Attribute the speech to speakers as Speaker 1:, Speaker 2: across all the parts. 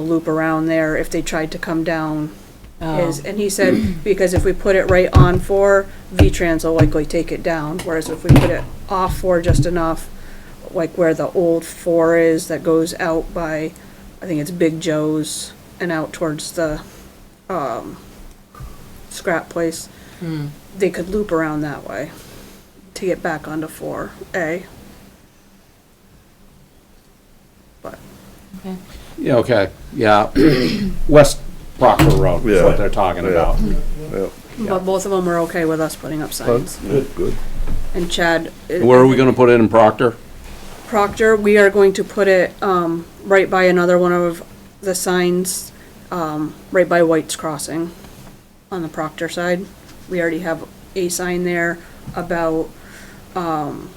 Speaker 1: loop around there if they tried to come down.
Speaker 2: Oh.
Speaker 1: Is, and he said, because if we put it right on four, V-Trans will likely take it down, whereas if we put it off four just enough, like where the old four is that goes out by, I think it's Big Joe's and out towards the, um, scrap place, they could loop around that way to get back onto four A. But
Speaker 2: Okay.
Speaker 3: Yeah, okay, yeah. West Proctor Road is
Speaker 4: Yeah.
Speaker 3: what they're talking
Speaker 4: Yeah.
Speaker 3: about.
Speaker 4: Yep,
Speaker 1: But both of them are okay with us putting up signs.
Speaker 4: good, good.
Speaker 1: And Chad. it-
Speaker 3: Where are we gonna put it in Proctor?
Speaker 1: Proctor, we are going to put it, um, right by another one of the signs, um, right by White's Crossing on the Proctor side. We already have a sign there about, um,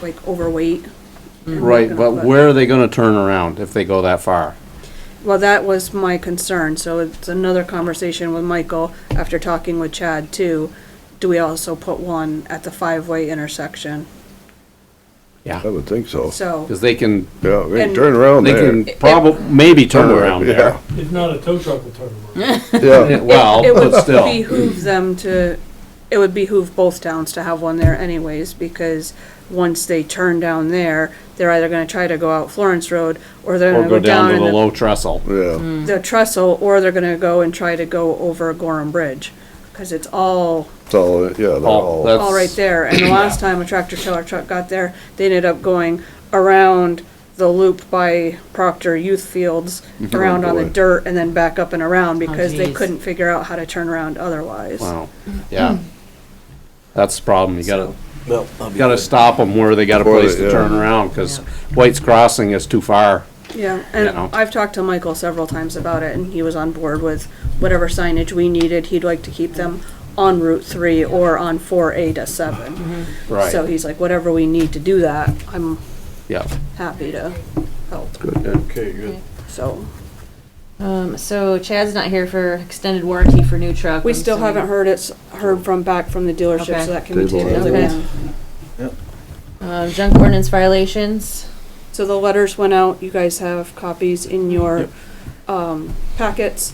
Speaker 1: like overweight.
Speaker 3: Right, but where are they gonna turn around if they go that far?
Speaker 1: Well, that was my concern, so it's another conversation with Michael after talking with Chad too. Do we also put one at the five-way intersection?
Speaker 4: I
Speaker 3: Yeah,
Speaker 4: would think
Speaker 3: Oh,
Speaker 4: so.
Speaker 1: So,
Speaker 3: because they can,
Speaker 4: Yeah, we can
Speaker 1: And-
Speaker 4: turn around
Speaker 3: they
Speaker 4: there.
Speaker 3: can probably, maybe turn
Speaker 4: somewhere,
Speaker 3: around there.
Speaker 5: If not, a tow truck will turn around.
Speaker 4: Yeah, yeah,
Speaker 3: Yeah, Well,
Speaker 1: it
Speaker 3: but
Speaker 1: would
Speaker 3: still,
Speaker 1: behoove them to, it would behoove both towns to have one there anyways, because once they turn down there, they're either gonna try to go out Florence Road, or they're
Speaker 3: or
Speaker 1: gonna
Speaker 3: go down to
Speaker 1: in
Speaker 3: the low trestle.
Speaker 4: yeah,
Speaker 1: the trestle, or they're gonna go and try to go over Gorham Bridge, cause it's all
Speaker 4: it's all, yeah, they're
Speaker 3: Oh,
Speaker 4: all,
Speaker 3: that's-
Speaker 1: all right there, and the last time a tractor trailer truck got there, they ended up going around the loop by Proctor Youth Fields,
Speaker 3: Mm-hmm. Oh,
Speaker 1: around on the
Speaker 4: boy.
Speaker 1: dirt, and then back up and around, because they
Speaker 2: geez.
Speaker 1: couldn't figure out how to turn around otherwise.
Speaker 3: Wow, yeah.
Speaker 1: Hmm.
Speaker 3: That's the problem, you gotta,
Speaker 6: Well,
Speaker 3: you gotta stop them where they got a
Speaker 4: Before
Speaker 3: place
Speaker 4: they-
Speaker 3: to
Speaker 4: yeah.
Speaker 3: turn around, because
Speaker 2: Yeah.
Speaker 3: White's Crossing is too far.
Speaker 1: Yeah,
Speaker 3: You
Speaker 1: and
Speaker 3: know.
Speaker 1: I've talked to Michael several times about it, and he was on board with whatever signage we needed, he'd like to keep them on Route three or on four A to seven. So
Speaker 3: Right,
Speaker 1: he's like, whatever we need to do that, I'm
Speaker 3: yeah.
Speaker 1: happy to help,
Speaker 6: Okay, good.
Speaker 1: so.
Speaker 2: Um, so Chad's not here for extended warranty for new truck.
Speaker 1: We
Speaker 2: I'm
Speaker 1: still
Speaker 2: assuming.
Speaker 1: haven't heard it's, heard from back from the dealership,
Speaker 2: Okay.
Speaker 1: so that can be
Speaker 4: Table
Speaker 1: taken
Speaker 2: items.
Speaker 1: down.
Speaker 2: Um, junk ordinance violations.
Speaker 1: So the letters went out, you guys have copies in your, um, packets.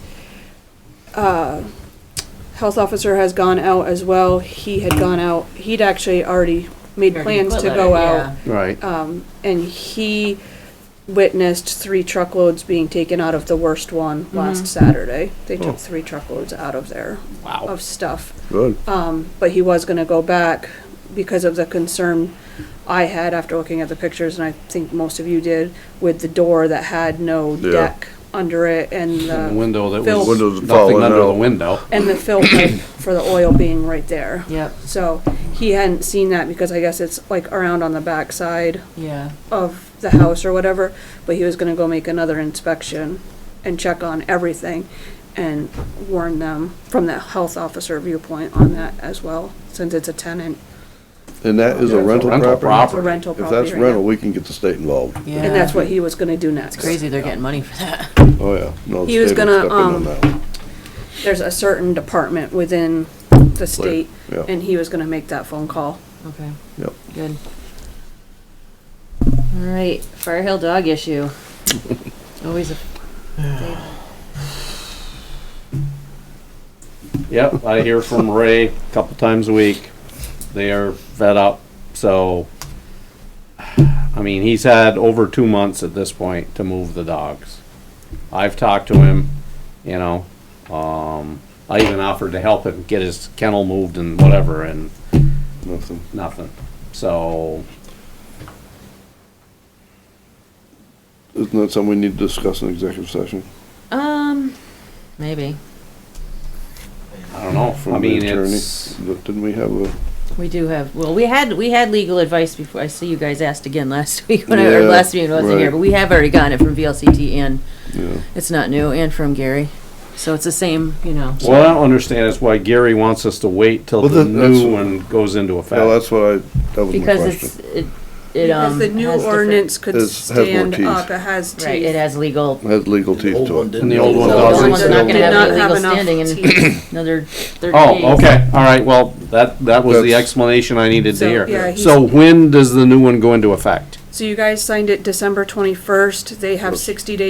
Speaker 1: Uh, Health officer has gone out as well, he had gone out, he'd actually already made plans to go out.
Speaker 3: Right.
Speaker 1: Um, and he witnessed three truckloads being taken out of the worst one last Saturday. They took three truckloads out of there
Speaker 3: Wow.
Speaker 1: of stuff.
Speaker 4: good.
Speaker 1: Um, but he was gonna go back because of the concern I had after looking at the pictures, and I think most of you did, with the door that had no
Speaker 4: Yeah.
Speaker 1: deck under it and
Speaker 3: And the
Speaker 1: the,
Speaker 3: window that
Speaker 1: Filth.
Speaker 3: was,
Speaker 4: Windows
Speaker 3: nothing
Speaker 4: falling
Speaker 3: under the
Speaker 4: out.
Speaker 3: window.
Speaker 1: and the filter for the oil being right there.
Speaker 2: Yep.
Speaker 1: So he hadn't seen that because I guess it's like around on the backside
Speaker 2: Yeah.
Speaker 1: of the house or whatever, but he was gonna go make another inspection and check on everything and warn them from the health officer viewpoint on that as well, since it's a tenant,
Speaker 4: And that is a rental
Speaker 3: Rental
Speaker 4: property?
Speaker 1: it's a rental
Speaker 4: If
Speaker 1: property.
Speaker 4: that's
Speaker 1: right now.
Speaker 4: rental, we can get the state involved.
Speaker 2: Yeah.
Speaker 1: And that's what he was gonna do next.
Speaker 2: Crazy, they're getting money for that.
Speaker 4: Oh, yeah. No, the
Speaker 1: He was
Speaker 4: state
Speaker 1: gonna,
Speaker 4: will step in on
Speaker 1: um,
Speaker 4: that one.
Speaker 1: There's a certain department within the state,
Speaker 4: yeah.
Speaker 1: and he was gonna make that phone call.
Speaker 2: Okay.
Speaker 4: Yep.
Speaker 2: Good. All right, Fire Hill dog issue. Always a.
Speaker 3: Yep, I hear from Ray a couple times a week. They are fed up, so. I mean, he's had over two months at this point to move the dogs. I've talked to him, you know, um, I even offered to help him get his kennel moved and whatever and
Speaker 4: Nothing.
Speaker 3: nothing. So,
Speaker 4: Isn't that something we need to discuss in executive session?
Speaker 2: Um, maybe
Speaker 3: I don't know,
Speaker 4: From
Speaker 3: I
Speaker 4: the
Speaker 3: mean,
Speaker 4: attorney?
Speaker 3: it's,
Speaker 4: But Didn't we have a?
Speaker 2: we do have. Well, we had we had legal advice before. I see you guys asked again last week when I or
Speaker 4: Yeah,
Speaker 2: last meeting wasn't here,
Speaker 4: right.
Speaker 2: but we have already gotten it from VLCT and
Speaker 4: Yeah.
Speaker 2: it's not new and from Gary, so it's the same. You know. so-
Speaker 3: what I don't understand is why Gary wants us to wait till
Speaker 4: Well,
Speaker 3: the
Speaker 4: that- that's-
Speaker 3: new one goes into effect.
Speaker 4: Well, that's what I, that was my
Speaker 2: Because
Speaker 4: question.
Speaker 2: it's, it, it,
Speaker 1: Because
Speaker 2: um.
Speaker 1: the new
Speaker 2: has different-
Speaker 1: ordinance could
Speaker 4: It's- has more
Speaker 1: stand
Speaker 4: teeth.
Speaker 1: up, it has teeth.
Speaker 2: Right, it has legal,
Speaker 4: It Has legal teeth
Speaker 6: old
Speaker 4: to
Speaker 6: one
Speaker 4: it.
Speaker 6: didn't.
Speaker 3: And the old one
Speaker 2: So the old
Speaker 3: doesn't.
Speaker 2: one's not gonna
Speaker 1: Did
Speaker 2: have
Speaker 1: not
Speaker 2: any
Speaker 1: have
Speaker 2: legal
Speaker 1: enough
Speaker 2: standing in
Speaker 1: teeth.
Speaker 2: another thirty days.
Speaker 3: Oh, okay, all right, well, that, that was the
Speaker 4: That's-
Speaker 3: explanation I needed to
Speaker 1: So, yeah,
Speaker 3: hear.
Speaker 1: he's-
Speaker 3: So when does the new one go into effect?
Speaker 1: So you guys signed it December twenty-first, they have sixty days